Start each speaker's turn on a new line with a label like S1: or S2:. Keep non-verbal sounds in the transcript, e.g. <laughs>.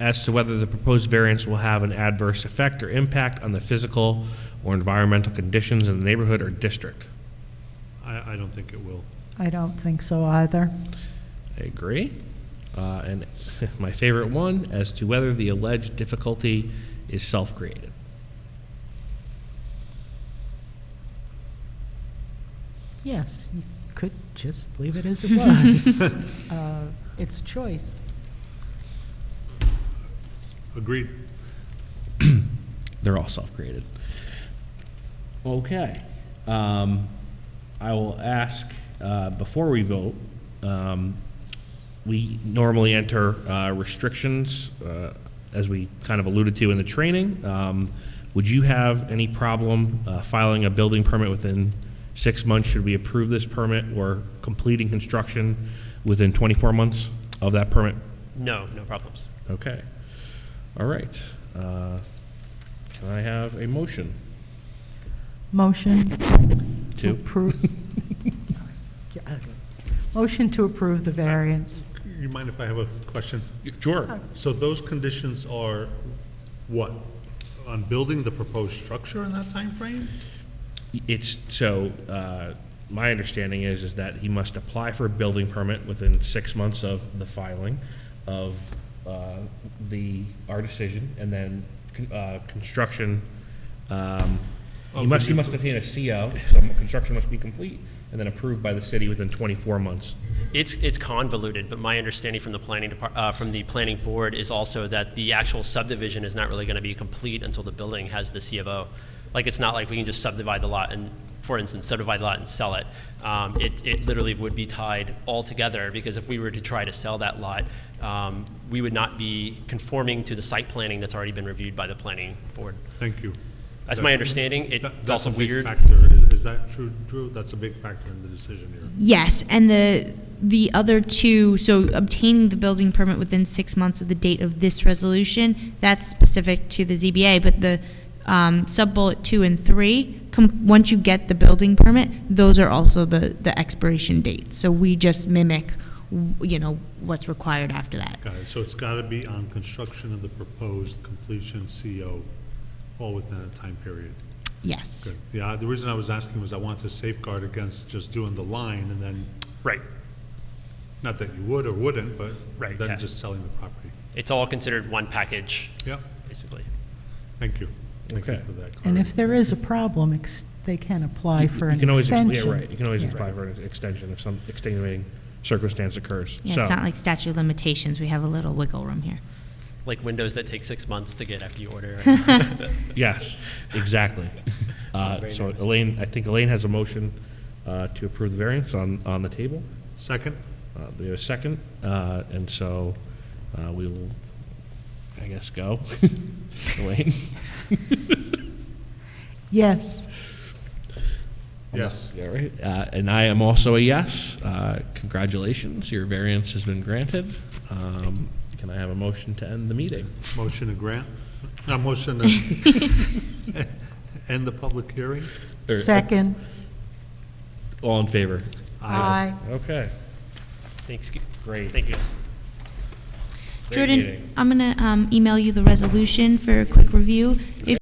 S1: as to whether the proposed variance will have an adverse effect or impact on the physical or environmental conditions in the neighborhood or district.
S2: I, I don't think it will.
S3: I don't think so either.
S1: I agree. Uh, and <laughs> my favorite one, as to whether the alleged difficulty is self-created.
S3: <laughs> Yes, you could just leave it as it was. Uh, It's a choice.
S2: Agreed.
S1: They're all self-created. Okay. Um, I will ask, uh, before we vote, um, we normally enter, uh, restrictions, uh, as we kind of alluded to in the training. Um, would you have any problem, uh, filing a building permit within six months should we approve this permit or completing construction within twenty-four months of that permit?
S4: No, no problems.
S1: Okay. All right. Uh, Can I have a motion
S3: Motion to
S1: to?
S3: <laughs> approve. Motion to approve the variance.
S2: You mind if I have a question?
S1: Sure.
S2: So those conditions are what? On building the proposed structure in that timeframe?
S1: It's, so, uh, my understanding is, is that he must apply for a building permit within six months of the filing of uh, the, our decision, and then con- uh, construction, um, he
S2: Oh,
S1: must, he
S2: did you-
S1: must obtain a CO, so construction must be complete, and then approved by the city within 24 months.
S4: It's, it's convoluted, but my understanding from the planning depart, uh, from the planning board is also that the actual subdivision is not really gonna be complete until the building has the C of O. Like, it's not like we can just subdivide the lot and, for instance, subdivide the lot and sell it. Um, it, it literally would be tied all together, because if we were to try to sell that lot, um, we would not be conforming to the site planning that's already been reviewed by the planning board.
S2: Thank you.
S4: That's my understanding. It-
S2: That-
S4: It's also weird.
S2: That's a big factor. Is- Is that true, Drew? That's a big factor in the decision here.
S4: Mm-hmm.
S5: Yes, and the the other two, so obtaining the building permit within six months of the date of this resolution, that's specific to the ZBA, but the um, sub-bullet two and three, com- once you get the building permit, those are also the, the expiration dates. So we just mimic, w- you know, what's required after that.
S2: Got it. So it's got to be on construction of the proposed completion CO, all within that time period. Good.
S5: Yes.
S2: Yeah, the reason I was asking was I wanted to safeguard against just doing the line and then,
S4: Right.
S2: not that you would or wouldn't, but
S4: Right, yeah.
S2: then just selling the property.
S4: It's all considered one package,
S2: Yep,
S4: basically.
S2: thank you. Thank you
S1: Okay.
S2: for that.
S3: And
S2: clarity.
S3: if there is a problem, ex- they can apply
S1: You-
S3: for
S1: you
S3: an
S1: can always ex- yeah,
S3: extension.
S1: right. You can always
S3: Yeah.
S1: apply for an extension if some extenuating circumstance occurs.
S5: Yeah,
S1: So-
S5: it's not like statute of limitations. We have a little wiggle room here.
S4: Like windows that take six months to get after you order.
S1: Yes, exactly. Uh,
S4: very
S1: So
S4: nervous.
S1: Elaine, I think Elaine has a motion uh, to approve the variance on, on the table.
S2: Second?
S1: Uh, We have a second, uh, and so uh, we will, I guess, go. <laughs> Elaine?
S3: Yes,
S2: Yes.
S1: All right. Uh, And I am also a yes. Uh, Congratulations, your variance has been granted. Um, Can I have a motion to end the meeting?
S2: Motion to grant, no, motion
S3: <laughs>
S2: to end the public hearing?
S1: Or- uh,
S3: second,
S1: All in favor?
S3: aye.
S1: Okay,
S4: Thanks.
S1: great.
S4: Thank you guys.
S1: Great meeting.
S5: Jordan, I'm going to um, email you the resolution for a quick review. If